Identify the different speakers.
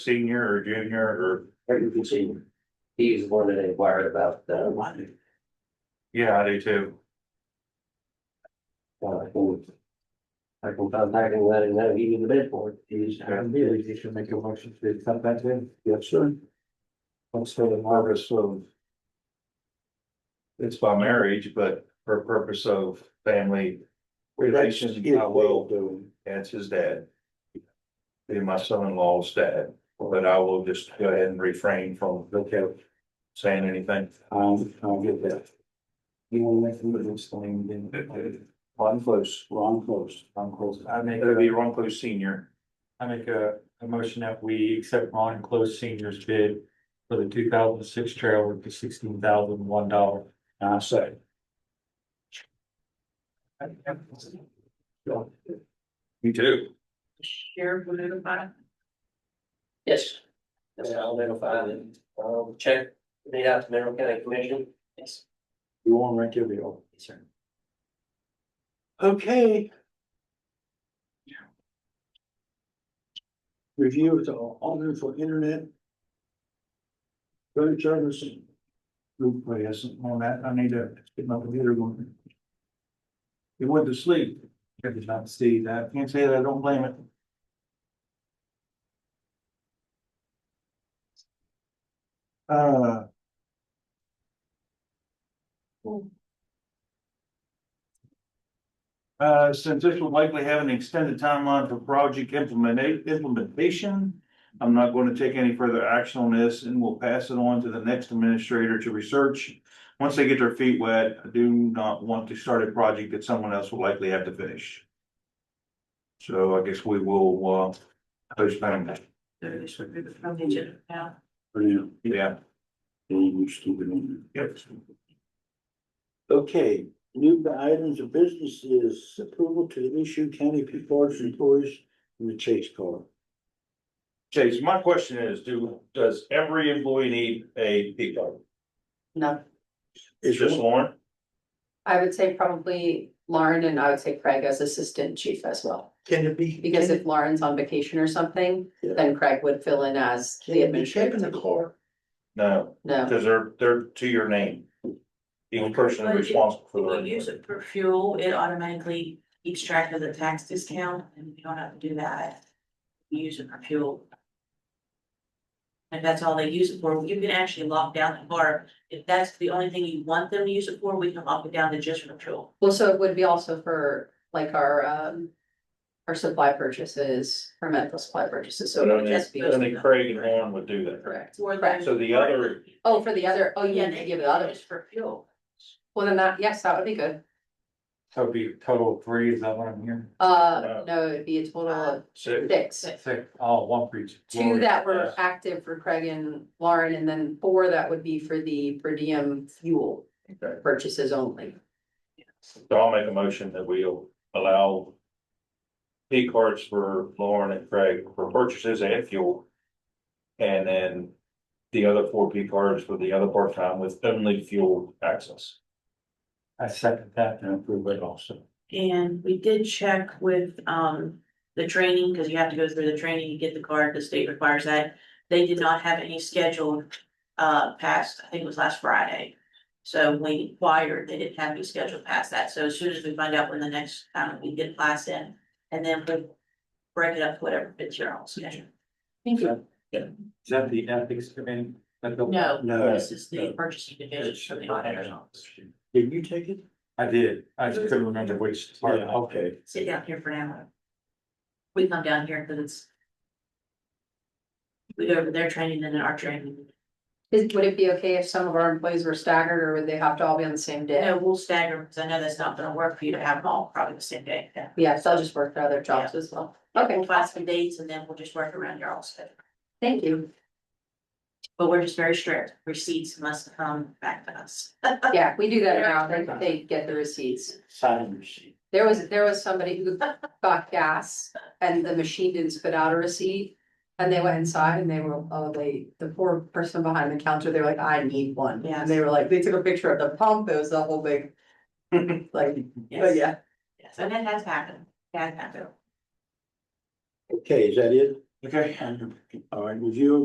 Speaker 1: senior or junior or,
Speaker 2: Everything senior. He's the one that inquired about uh,
Speaker 3: Oh,
Speaker 2: the.
Speaker 1: yeah, I do too.
Speaker 2: uh, I can contact him, let him know he needs a bid for it. He's.
Speaker 3: And really, you should make a motion to accept that then. Yes, sir. What's the
Speaker 1: Purpose of. It's by marriage, but for purpose of family relations, I will,
Speaker 3: do.
Speaker 1: that's his dad. Be my son-in-law's dad, but I will just go ahead and refrain from
Speaker 3: Okay,
Speaker 1: saying anything.
Speaker 3: I'll,
Speaker 2: um,
Speaker 3: I'll get that. You want to make some of this thing, then. Ron close. Ron close. Ron close. I make,
Speaker 1: It'll be Ronco Senior.
Speaker 3: I make a, a motion that we accept Ron Close Senior's bid for the two thousand six trailer for sixteen thousand one dollar. I say.
Speaker 1: Me too.
Speaker 4: Sheriff will notify.
Speaker 2: Yes. That's how I'll notify him. Um, check, made out to Mineral County Commission. Yes.
Speaker 3: You want to rank your bill?
Speaker 2: Yes, sir.
Speaker 3: Okay. Review of the alternate for internet. Road service. Group play isn't on that, Oh, I need to get my computer going. It went to sleep, I did not see that, can't say that, I don't blame it. Uh. Uh, since this will likely have an extended timeline for project implementa- implementation. I'm not going to take any further action on this and we'll pass it on to the next administrator to research. Once they get their feet wet, I do not want to start a project that someone else will likely have to finish. So I guess we will, uh, postpone that.
Speaker 4: So this would be from the agenda now.
Speaker 1: Yeah.
Speaker 3: Yep. Okay, new items of business is approval to issue county P cards to employees in the chase car.
Speaker 1: Chase, my question is, do, does every employee need a P card?
Speaker 5: No,
Speaker 1: It's just Lauren?
Speaker 5: I would say probably Lauren and I would say Craig as assistant chief as well.
Speaker 6: Can it be?
Speaker 5: Because if Lauren's on vacation or something,
Speaker 6: Yeah.
Speaker 5: then Craig would fill in as
Speaker 6: Can
Speaker 5: the
Speaker 6: it be kept in
Speaker 5: administrator.
Speaker 6: the car?
Speaker 1: No,
Speaker 5: No,
Speaker 1: because they're, they're to your name. Each person is responsible for
Speaker 4: When you
Speaker 1: their.
Speaker 4: use it for fuel, it automatically keeps track of the tax discount and you don't have to do that. You Use it for fuel. And that's all they use it for. You can actually lock down the car. If that's the only thing you want them to use it for, we can lock it down to just for fuel.
Speaker 5: well, so it would be also for like our um. Our supply purchases, our medical supply purchases, so
Speaker 1: But
Speaker 5: it would
Speaker 1: only,
Speaker 5: just be,
Speaker 4: Yes.
Speaker 1: only Craig and Lauren would do that.
Speaker 5: correct.
Speaker 4: For
Speaker 5: Correct.
Speaker 1: So the other-
Speaker 5: Oh, for the other, oh, you
Speaker 4: Yeah,
Speaker 5: need to
Speaker 4: they
Speaker 5: give it others.
Speaker 4: Just for fuel.
Speaker 5: Well, then that, yes, that would be good.
Speaker 3: So it'd be total of three, is that what I'm hearing? Uh,
Speaker 5: Uh, no, it'd be a total of
Speaker 1: So
Speaker 5: six.
Speaker 3: Six, oh, one for each.
Speaker 5: Two that were
Speaker 1: yes.
Speaker 5: active for Craig and Lauren, and then four that would be for the per diem fuel
Speaker 1: Okay.
Speaker 5: purchases only.
Speaker 1: so I'll make a motion that we'll allow P cards for Lauren and Craig for purchases and fuel. And then the other four P cards for the other part-time with only fuel access.
Speaker 3: I second that and approve it also.
Speaker 4: And we did check with um the training, because you have to go through the training to get the card, the state requires that. They did not have any scheduled uh past, I think it was last Friday. So we inquired, they didn't have any scheduled past that, so as soon as we find out when the next time we get class in, and then we break it up to whatever fits your own schedule.
Speaker 5: Thank
Speaker 3: you. Is that the ethics committee?
Speaker 4: No,
Speaker 1: uh,
Speaker 3: No.
Speaker 4: this is the purchasing division for the auditor's office.
Speaker 6: Did you take it?
Speaker 3: I did, I just couldn't remember which part.
Speaker 6: okay.
Speaker 4: Sit down here for now. We come down here because it's. We go over their training and then our training.
Speaker 5: Is, would it be okay if some of our employees were staggered, or would they have to all be on the same day?
Speaker 4: No, we'll stagger, because I know that's not gonna work for you to have them all probably the same day.
Speaker 5: Yeah, so I'll just work for other jobs as well. Okay,
Speaker 4: We'll find some dates and then we'll just work around your all schedule.
Speaker 5: thank you.
Speaker 4: But we're just very strict. Receipts must come back to us.
Speaker 5: Yeah, we do that now, they, they get the receipts.
Speaker 3: Sign machine.
Speaker 5: There was, there was somebody who got gas and the machine didn't spit out a receipt. And they went inside and they were, oh, they, the poor person behind the counter, they were like, I need one.
Speaker 4: Yes.
Speaker 5: And they were like, they took a picture of the pump, it was a whole big. Like, but yeah,
Speaker 4: Yes, and it has happened. It Has happened.
Speaker 6: Okay, is that it?
Speaker 3: Okay.
Speaker 6: All right, review